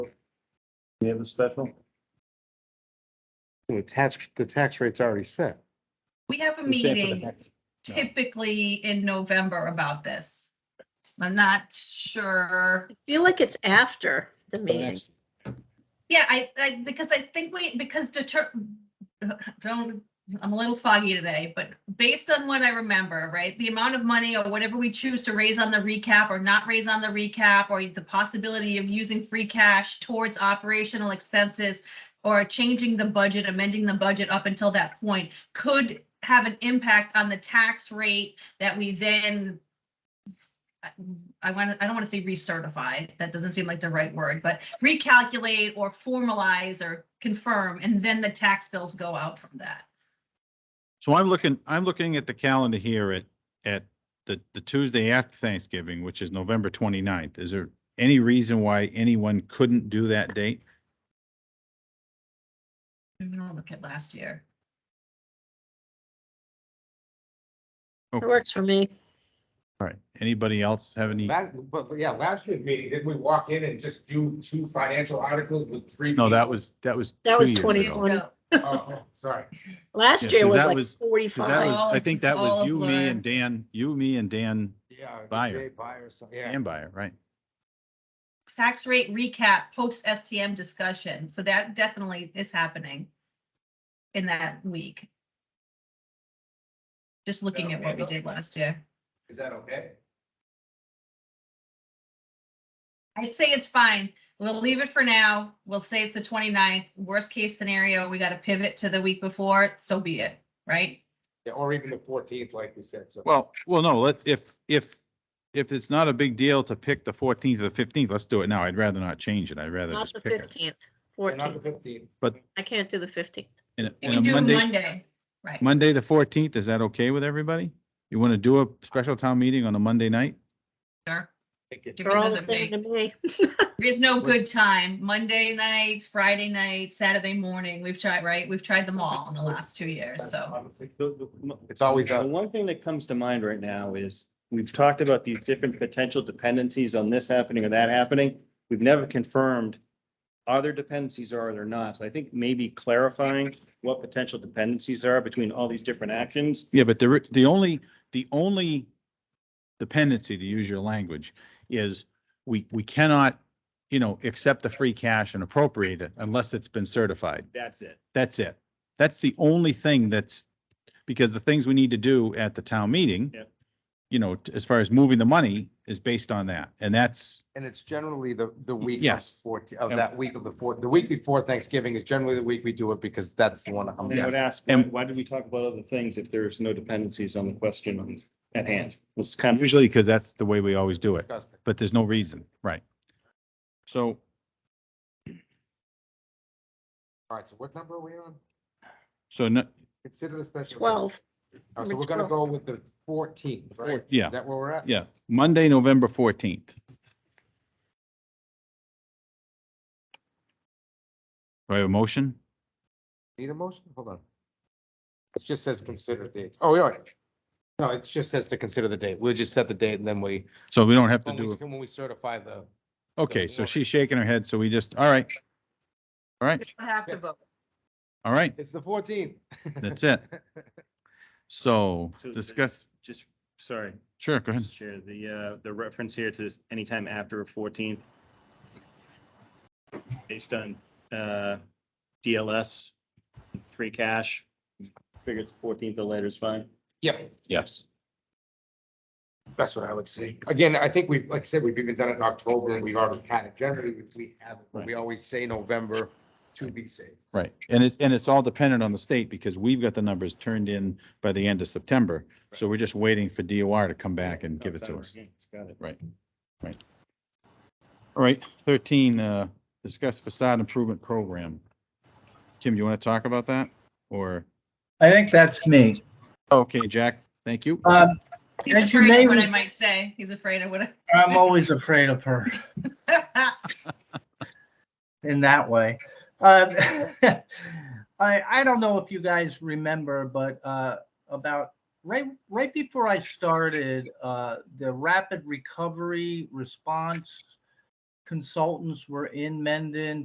We have a special? The tax, the tax rate's already set. We have a We're set for the meeting next- No. typically in November about this. I'm not sure. I feel like it's after for the the meeting. next- Yeah, I, I, because I think we, because deter, don't, I'm a little foggy today, but based on what I remember, right? The amount of money or whatever we choose to raise on the recap or not raise on the recap, or the possibility of using free cash towards operational expenses or changing the budget, amending the budget up until that point could have an impact on the tax rate that we then I want to, I don't want to say recertify, that doesn't seem like the right word, but recalculate or formalize or confirm, and then the tax bills go out from that. So I'm looking, I'm looking at the calendar here at, at the, the Tuesday after Thanksgiving, which is November 29th. Is there any reason why anyone couldn't do that date? I'm gonna look at last year. It works for me. All right. Anybody else have any? Last, but, but yeah, last year's meeting, didn't we walk in and just do two financial articles with three? No, that people? was, that was. That was two 2020. years ago. Twenty- So, Oh, Sorry. Yeah, Last year 'cause was that like was- 'Cause that forty-five. was, I think that It's all was a you, me blur. and Dan, you, me and Dan, Yeah. Jay Buyer. Buyer, so- yeah. Dan Byer, right? Tax rate recap, post STM discussion, so that definitely is happening in that week. Just looking at what we did last year. Is that okay? I'd say it's fine. We'll leave it for now. We'll say it's the 29th. Worst case scenario, we got to pivot to the week before, so be it, right? Yeah, or even the fourteenth, like we said, so. Well, well, no, let, if, if, if it's not a big deal to pick the 14th or the 15th, let's do it now. I'd rather not change it. I'd rather Not just the pick it. fifteenth, Or Not the fourteenth. fifteenth. I can't do the fifteenth. And a- We and do a Monday, Monday, right? Monday, the fourteenth, is that okay with everybody? You want to do a special town meeting on a Monday night? Sure. They're all the Because of same to me. There's no good time. Monday night, Friday night, Saturday morning. We've tried, right? We've tried them all in the last two years, so. It's always The us. one thing that comes to mind right now is, we've talked about these different potential dependencies on this happening or that happening. We've never confirmed are there dependencies or are there not. So I think maybe clarifying what potential dependencies are between all these different actions. Yeah, but the, the only, the only dependency, to use your language, is we, we cannot, you know, accept the free cash and appropriate it unless it's been certified. That's it. That's it. That's the only thing that's, because the things we need to do at the town meeting, Yep. you know, t- as far as moving the money is based on that. And that's, And it's generally the, the week. of Yes. 14 of Yeah. that week of the fourth, the week before Thanksgiving is generally the week we do it because that's the one. I'm And I would guessing. ask, why, And- why did we talk about other things if there's no dependencies on the question at hand? It's kind of, usually because that's the way we always do it. Disgusting. but there's no reason, right? So All right, so what number are we on? So, no- Consider the special. Twelve. All right, So we're gonna go with the fourteenth, right? yeah, Is that where we're at? yeah, Monday, November fourteenth. Do I have a motion? Need a motion? Hold on. It just says consider dates. Oh, yeah. No, it just says to consider the date. We'll just set the date and then we, So we don't have to when we, do, when we certify the, okay, so she's shaking her head, so we just, all right. All right, have to vote. all right, it's the fourteenth. that's it. So discuss, just, sorry, sure, go ahead. Mr. Chair, the, uh, the reference here to this anytime after fourteenth. Based on, uh, DLS, free cash, figure it's fourteenth or later is fine. Yep, Yes. that's what I would say. Again, I think we, like I said, we've even done it in October and we've already had it. Generally, we- we have, it, but we always say November to be safe. Right, and it's, and it's all dependent on the state because we've got the numbers turned in by the end of September. So we're just waiting for DOR to come back and give it to us. Got it. Right, right. All right, thirteen, uh, discuss facade improvement program. Tim, you want to talk about that or, I think that's me. okay, Jack, thank you. Um, He's As you afraid may of what I re- might say. He's afraid of what. I'm always afraid of her I- in that way. Um, I, I don't know if you guys remember, but uh, about right right before I started, uh, the rapid recovery response consultants were in Mendon